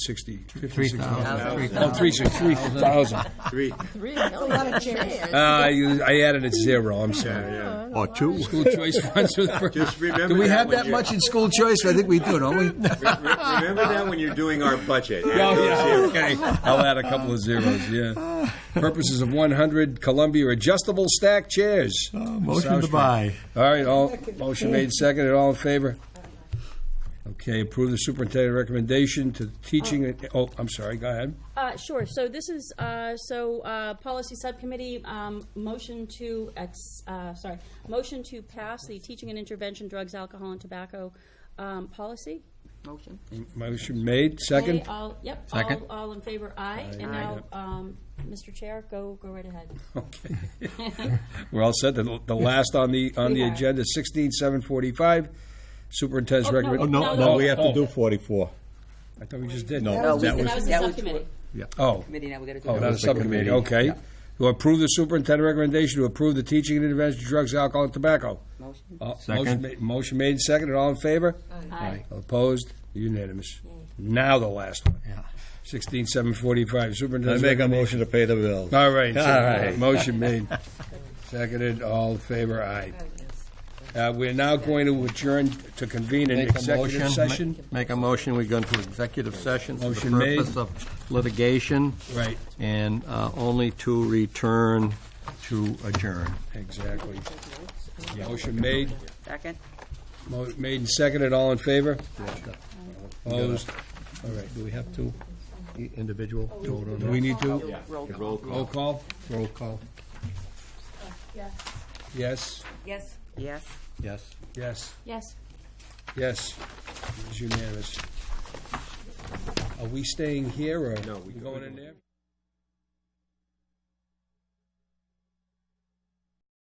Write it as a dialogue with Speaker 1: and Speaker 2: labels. Speaker 1: 60, 50,
Speaker 2: Three
Speaker 1: 60.
Speaker 2: thousand, three
Speaker 1: Oh,
Speaker 2: thousand.
Speaker 1: three, six, three thousand.
Speaker 3: Three,
Speaker 4: That's a lot of chairs.
Speaker 1: Uh, I I added a zero, I'm
Speaker 3: yeah,
Speaker 1: sorry.
Speaker 3: yeah.
Speaker 2: Or two.
Speaker 1: School choice funds. for the-
Speaker 3: Just remember
Speaker 2: Do we
Speaker 3: that
Speaker 2: have
Speaker 3: when
Speaker 2: that
Speaker 3: you-
Speaker 2: much in school choice? I think we do, don't we?
Speaker 3: Re- Remember that when you're doing our budget.
Speaker 1: Oh, yeah, okay. I'll add a couple of zeros, yeah. Purposes of one hundred Columbia adjustable stack chairs.
Speaker 2: Motion
Speaker 1: South
Speaker 2: to
Speaker 1: Street.
Speaker 2: buy.
Speaker 1: All right, all, motion made second, all in favor? Okay, approve the superintendent recommendation to teaching, oh, I'm sorry, go ahead.
Speaker 4: Uh, sure, so this is, uh, so, uh, policy subcommittee, um, motion to ex, uh, sorry, motion to pass the teaching and intervention drugs, alcohol, and tobacco, um, policy.
Speaker 5: Motion.
Speaker 1: Motion made,
Speaker 4: Okay,
Speaker 1: second?
Speaker 4: all, yep,
Speaker 2: Second.
Speaker 4: all, all in favor, aye. And now,
Speaker 1: Yep.
Speaker 4: um, Mr. Chair, go, go right ahead.
Speaker 1: Okay. We're all set, the, the last on the, on the
Speaker 4: We are.
Speaker 1: agenda, sixteen seven forty-five, superintendent's
Speaker 4: Oh, no.
Speaker 1: recommend.
Speaker 4: Oh,
Speaker 2: No,
Speaker 4: No,
Speaker 2: no, we have
Speaker 1: oh.
Speaker 2: to do forty-four.
Speaker 1: I thought we just did.
Speaker 2: No.
Speaker 5: No,
Speaker 2: That
Speaker 5: we-
Speaker 4: That was the
Speaker 5: that was-
Speaker 4: subcommittee.
Speaker 1: Oh,
Speaker 5: Committee, now we gotta do.
Speaker 1: oh,
Speaker 5: it.
Speaker 1: that is subcommittee, okay.
Speaker 2: Yeah.
Speaker 1: To approve the superintendent recommendation to approve the teaching and intervention of drugs, alcohol, and tobacco.
Speaker 5: Motion.
Speaker 1: Uh, motion
Speaker 2: Second.
Speaker 1: ma- Motion made second, and all in favor?
Speaker 4: Aye.
Speaker 1: Opposed? Unanimous. Now the last one.
Speaker 2: Yeah.
Speaker 1: Sixteen seven forty-five,
Speaker 2: I
Speaker 1: superintendent's.
Speaker 2: make a
Speaker 1: recommendation.
Speaker 2: motion to pay the bill.
Speaker 1: All right.
Speaker 2: All right.
Speaker 1: Motion made. Seconded, all in favor, aye. Uh, we're now going to adjourn to convene an
Speaker 2: Make a
Speaker 1: executive
Speaker 2: motion,
Speaker 1: session.
Speaker 2: ma- make a motion, we go into executive session for the
Speaker 1: Motion made.
Speaker 2: purpose of litigation.
Speaker 1: Right.
Speaker 2: And uh, only to return to adjourn.
Speaker 1: Exactly. Motion made,
Speaker 5: Second?
Speaker 1: mo- made and seconded, all in favor? Opposed? All right.
Speaker 2: Do we have to, e- individual, vote on
Speaker 1: Do
Speaker 2: that?
Speaker 1: we need to?
Speaker 3: Roll
Speaker 5: Roll call.
Speaker 1: Roll
Speaker 3: call.
Speaker 1: call?
Speaker 2: Roll call.
Speaker 1: Yes,
Speaker 4: Yes.
Speaker 5: Yes.
Speaker 2: Yes.
Speaker 1: yes,
Speaker 4: Yes.
Speaker 1: yes. It's unanimous. Are we staying here or?
Speaker 3: No, we-
Speaker 1: Going in there?